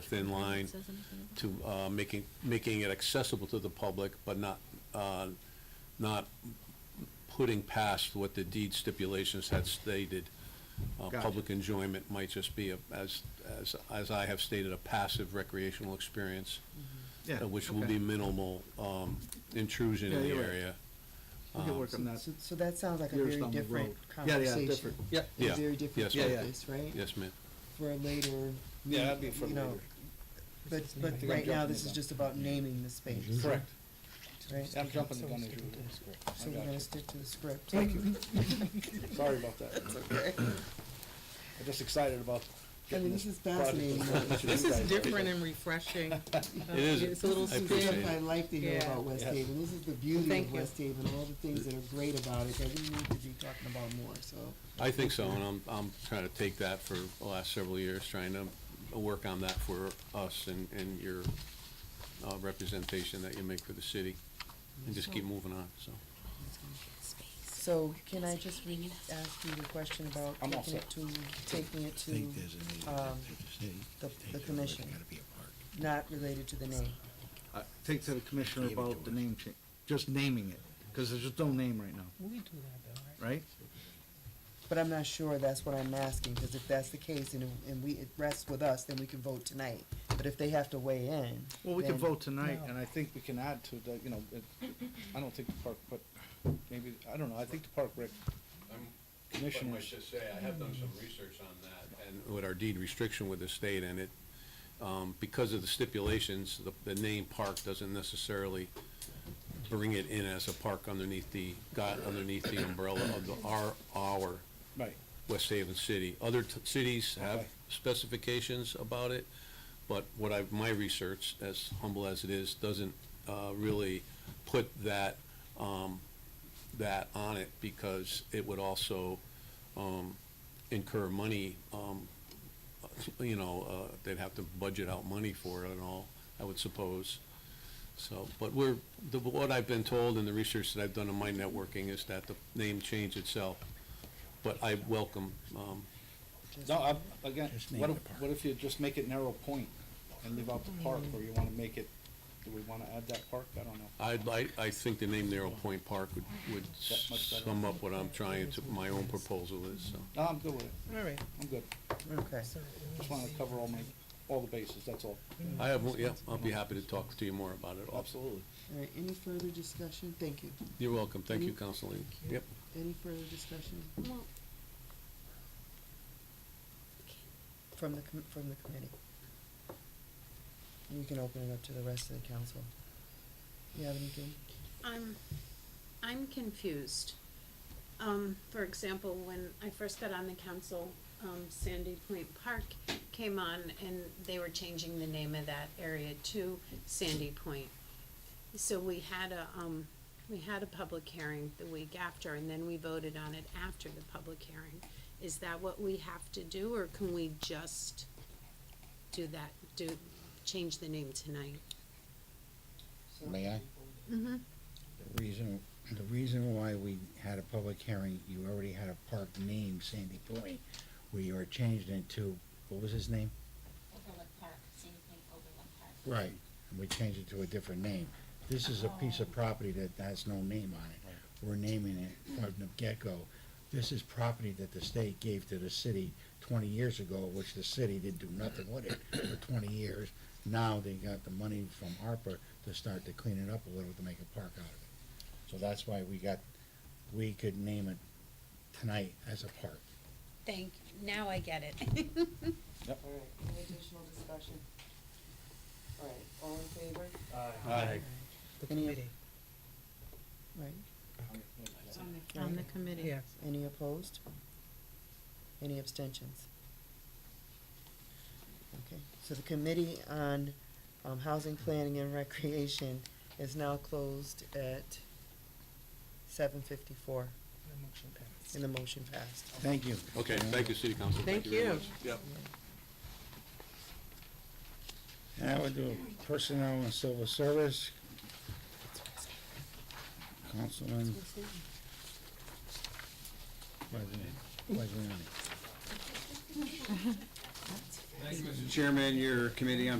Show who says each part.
Speaker 1: thin line
Speaker 2: Says anything.
Speaker 1: to uh, making, making it accessible to the public, but not, uh, not putting past what the deed stipulations had stated. Uh,
Speaker 3: Gotcha.
Speaker 1: Public enjoyment might just be, a- as, as, as I have stated, a passive recreational experience,
Speaker 3: Yeah,
Speaker 1: uh, which will
Speaker 3: okay.
Speaker 1: be minimal um, intrusion in
Speaker 3: Yeah,
Speaker 1: the
Speaker 3: you're right.
Speaker 1: area.
Speaker 3: We can work on that.
Speaker 4: So, so that sounds like a
Speaker 3: Yours
Speaker 4: very
Speaker 3: down the
Speaker 4: different
Speaker 3: road. Yeah, yeah,
Speaker 4: conversation.
Speaker 3: different. Yep.
Speaker 4: A
Speaker 1: Yeah,
Speaker 4: very
Speaker 1: yes,
Speaker 4: different
Speaker 3: ma'am. Yeah, yeah.
Speaker 4: focus, right?
Speaker 1: Yes, ma'am.
Speaker 4: For a later.
Speaker 3: Yeah, that'd be for
Speaker 4: you know,
Speaker 3: later.
Speaker 4: But,
Speaker 3: I
Speaker 4: but
Speaker 3: think I'm
Speaker 4: right now,
Speaker 3: jumping
Speaker 4: this
Speaker 3: the
Speaker 4: is
Speaker 3: gun.
Speaker 4: just about naming the space,
Speaker 3: Correct.
Speaker 4: right?
Speaker 3: I'm jumping the gun as
Speaker 4: So
Speaker 3: usual.
Speaker 4: we're
Speaker 3: I got
Speaker 4: gonna
Speaker 3: you.
Speaker 4: stick to the script.
Speaker 3: Thank you. Sorry about that. That's okay. I'm just excited about
Speaker 4: I mean,
Speaker 3: getting
Speaker 4: this
Speaker 3: this
Speaker 4: is
Speaker 3: project.
Speaker 4: fascinating.
Speaker 5: This is different and refreshing.
Speaker 1: It is.
Speaker 5: It's a little
Speaker 1: I
Speaker 4: This is the
Speaker 1: appreciate
Speaker 5: spin.
Speaker 4: stuff I like to hear
Speaker 5: Yeah.
Speaker 4: about West
Speaker 3: Yes.
Speaker 4: Haven, this is the beauty
Speaker 5: Thank
Speaker 4: of
Speaker 5: you.
Speaker 4: West Haven, all the things that are great about it, that we need to be talking about more, so.
Speaker 1: I think so, and I'm, I'm trying to take that for the last several years, trying to work on that for us and, and your uh, representation that you make for the city, and just keep moving on, so.
Speaker 4: So can I just re- ask you the question about
Speaker 3: I'm all
Speaker 4: taking it
Speaker 3: set.
Speaker 4: to, taking it to,
Speaker 6: think there's a need,
Speaker 4: um,
Speaker 6: I
Speaker 4: the- the
Speaker 6: think there's
Speaker 4: commission.
Speaker 6: gotta be a park.
Speaker 4: not related to the name?
Speaker 3: Uh, Take to the commissioner
Speaker 6: Give it
Speaker 3: about
Speaker 6: to
Speaker 3: the
Speaker 6: her.
Speaker 3: name change, just naming it, because there's just no name right now. We do that though, right?
Speaker 4: But I'm not sure that's what I'm asking, because if that's the case and, and we, it rests with us, then we can vote tonight. But if they have to weigh in.
Speaker 3: Well, we can
Speaker 4: then-
Speaker 3: vote tonight, and I think we can add to the, you know, it, I don't think the park, but maybe, I don't know, I think the park rec
Speaker 1: I
Speaker 3: commissioners.
Speaker 1: should say, I have done some research on that, and with our deed restriction with the state, and it, um, because of the stipulations, the, the name park doesn't necessarily bring it in as a park underneath the, got underneath the umbrella of the, our, our
Speaker 3: Right,
Speaker 1: West Haven City. Other t- cities have
Speaker 3: Okay.
Speaker 1: specifications about it, but what I, my research, as humble as it is, doesn't uh, really put that, um, that on it because it would also um, incur money, um, you know, uh, they'd have to budget out money for it and all, I would suppose. So, but we're, the- what I've been told and the research that I've done in my networking is that the name change itself but I welcome, um,
Speaker 3: no, I, again,
Speaker 6: Just name
Speaker 3: what if,
Speaker 6: the park.
Speaker 3: what if you just make it narrow point and leave out the park, or you wanna make it, do we wanna add that park, I don't know.
Speaker 1: I'd like, I think the name Narrow Point Park would, would
Speaker 3: That much better.
Speaker 1: sum up what I'm trying to, my own proposal is, so.
Speaker 3: No, I'm good with it,
Speaker 4: All right.
Speaker 3: I'm good,
Speaker 4: Okay.
Speaker 3: just wanna cover all my, all the bases, that's all,
Speaker 1: I have, yeah, I'll be happy to talk to you more about it. also.
Speaker 3: absolutely.
Speaker 4: All right, any further discussion? Thank you.
Speaker 1: You're welcome, Mm-hmm. thank you, Councilman. Yep,
Speaker 4: Any further discussion
Speaker 2: Well,
Speaker 4: from the, com- from the committee? We can open it up to the rest of the council. You have anything?
Speaker 7: I'm, I'm confused. Um, for example, when I first got on the council, um, Sandy Point Park came on and they were changing the name of that area to Sandy Point. So we had a, um, we had a public hearing the week after and then we voted on it after the public hearing. Is that what we have to do or can we just do that, do, change the name tonight?
Speaker 6: May I?
Speaker 7: Mm-hmm.
Speaker 6: The reason, the reason why we had a public hearing, you already had a park named Sandy Point, where you were changed into, what was his name?
Speaker 8: Overlook Park, Sandy Point Overlook Park.
Speaker 6: Right. And we changed it to a different name. This is a piece
Speaker 8: Oh.
Speaker 6: of property that has no name on it. We're naming it from the get-go. This is property that the state gave to the city twenty years ago, which the city didn't do nothing with it for twenty years. Now they got the money from ARPA to start to clean it up a little to make a park out of it. So that's why we got, we could name it tonight as a park.
Speaker 7: Thank, now I get it.
Speaker 4: All right, any additional discussion? All right, all in favor?
Speaker 3: Aye.
Speaker 5: The
Speaker 4: Any-
Speaker 5: committee,
Speaker 4: Right,
Speaker 7: On the committee.
Speaker 5: yeah.
Speaker 4: any opposed? Any abstentions? Okay, so the Committee on, um, Housing Planning and Recreation is now closed at seven fifty-four, and the motion passed.
Speaker 6: Thank you.
Speaker 1: okay, thank you, City Council.
Speaker 5: Thank
Speaker 1: very
Speaker 5: you.
Speaker 1: much. Yep.
Speaker 6: And I would do personnel and civil service. Councilman. President, President. Thank you, Mr. Chairman, your committee on